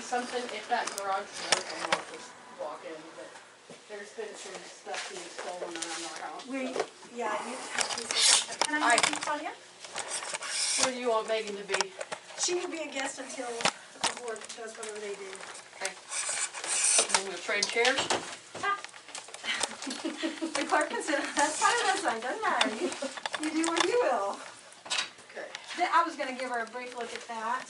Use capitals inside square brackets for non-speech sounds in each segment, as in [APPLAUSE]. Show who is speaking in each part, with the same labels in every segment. Speaker 1: something, if that garage is open, I'll just walk in, but there's been some stuff being stolen around our house.
Speaker 2: We,
Speaker 1: so-
Speaker 2: yeah, you have these. Can
Speaker 1: I-
Speaker 2: I have you, Claudia?
Speaker 1: Where do you want Megan to be?
Speaker 2: She will be a guest until the board does whatever they do.
Speaker 1: Okay. And then we'll trade chairs?
Speaker 2: [LAUGHS] The clerk can sit, that's fine, that's fine, doesn't matter. You- You do what you will.
Speaker 1: Okay.
Speaker 2: Th- I was gonna give her a brief look at that.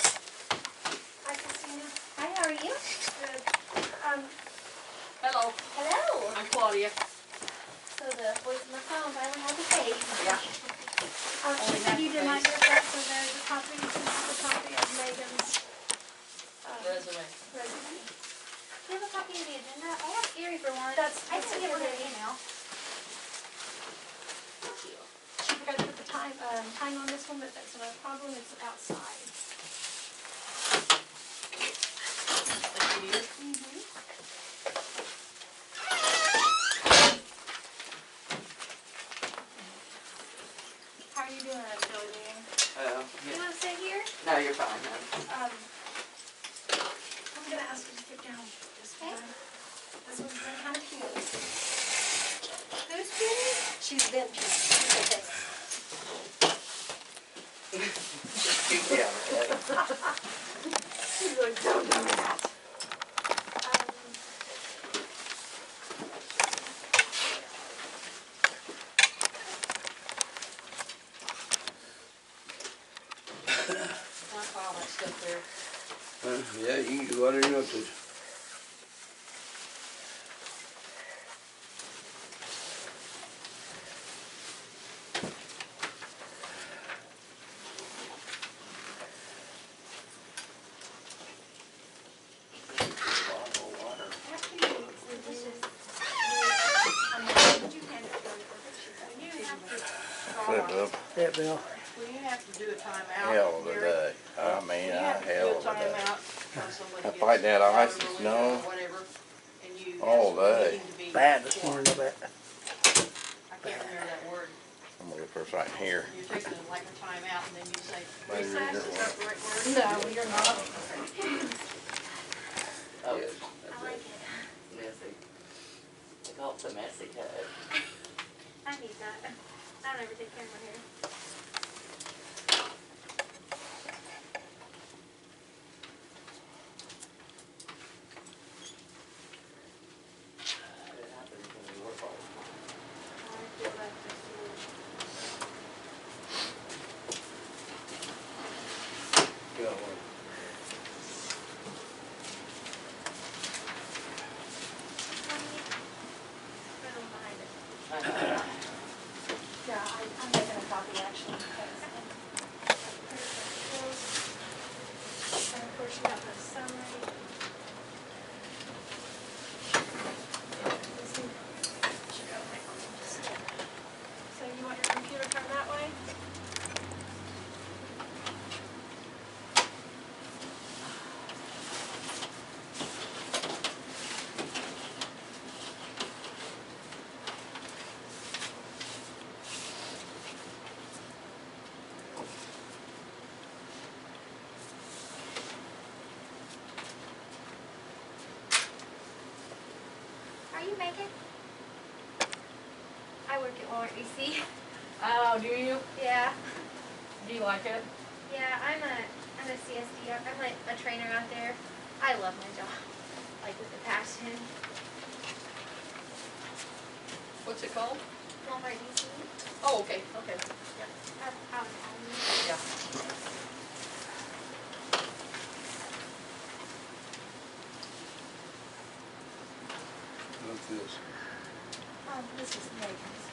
Speaker 3: Hi, Christina. Hi, how are you?
Speaker 2: Good.
Speaker 3: Um,
Speaker 1: Hello,
Speaker 3: hello.
Speaker 1: I'm Claudia.
Speaker 3: So the voice on the phone finally has a face.
Speaker 1: Yeah.
Speaker 2: Um,
Speaker 1: Only
Speaker 2: she said you
Speaker 1: half face.
Speaker 2: did not give that, so there's a copy, this is a copy of Megan's, um,
Speaker 1: Resume.
Speaker 2: resume.
Speaker 3: Do you have a copy of the agenda? I have Erie for one.
Speaker 2: That's-
Speaker 3: I can give her an
Speaker 2: that's-
Speaker 3: email. Thank you.
Speaker 2: She forgot to put the time, um, time on this one, but that's not a problem, it's outside.
Speaker 1: Thank you.
Speaker 2: How are you doing, Jolene?
Speaker 4: Oh,
Speaker 3: You
Speaker 4: yeah.
Speaker 3: want to sit here?
Speaker 4: no, you're fine. no.
Speaker 2: Um, I'm gonna ask you to get down this
Speaker 3: Okay.
Speaker 2: one. This one's been kind of cute.
Speaker 3: Who's kidding?
Speaker 2: She's been cute.
Speaker 4: Yeah, okay.
Speaker 2: [LAUGHS] She's like, don't do that. Um,
Speaker 1: My file that stuff there.
Speaker 5: Uh, Yeah, you can do whatever you want to.
Speaker 1: When you have
Speaker 4: Bottle of water.
Speaker 1: to, Carla,
Speaker 6: Yeah, Bill.
Speaker 1: when you have to do a timeout.
Speaker 6: Hell of a
Speaker 1: Gary,
Speaker 6: day. I mean,
Speaker 1: You
Speaker 6: a
Speaker 1: have to do
Speaker 6: hell
Speaker 1: a
Speaker 6: of a day.
Speaker 1: timeout when somebody
Speaker 6: I
Speaker 1: gets
Speaker 6: fight that ice
Speaker 1: out
Speaker 6: and
Speaker 1: of the
Speaker 6: snow
Speaker 1: window or Whatever, and you. ask
Speaker 6: all
Speaker 1: for the
Speaker 6: day.
Speaker 1: meeting to be
Speaker 7: Bad this
Speaker 1: before.
Speaker 7: morning, I bet.
Speaker 1: I can't remember that word.
Speaker 6: I'm gonna go first right here.
Speaker 1: You're taking like a timeout and then you say
Speaker 6: Maybe we
Speaker 1: recess,
Speaker 6: don't
Speaker 1: is that
Speaker 6: want-
Speaker 1: the right word? No, you're not.
Speaker 4: Oh,
Speaker 3: I
Speaker 5: Yes, that's
Speaker 3: like
Speaker 5: it.
Speaker 3: it.
Speaker 4: messy. They call it the messy tub.
Speaker 3: I need that. I don't ever take care of my hair.
Speaker 4: It happens when we work all the
Speaker 3: I feel like just a little-
Speaker 5: Go on.
Speaker 3: Right on behind it.
Speaker 4: time.
Speaker 2: yeah, I, I'm making a copy actually, because. um, And of course, you have the summary. This is- should go like just like that. So you want your computer turned that way?
Speaker 3: Are you making? I work at Walmart DC.
Speaker 1: Oh, do you?
Speaker 3: Yeah,
Speaker 1: Do you like it?
Speaker 3: yeah. I'm a I'm a CSD. I'm like a trainer out there. I love my job, like with a passion.
Speaker 1: What's it called?
Speaker 3: Walmart DC.
Speaker 1: Oh, okay, okay.
Speaker 3: Up out in Avenue.
Speaker 1: Yeah.
Speaker 5: What's this?
Speaker 2: Um, this is Megan's.
Speaker 5: uh,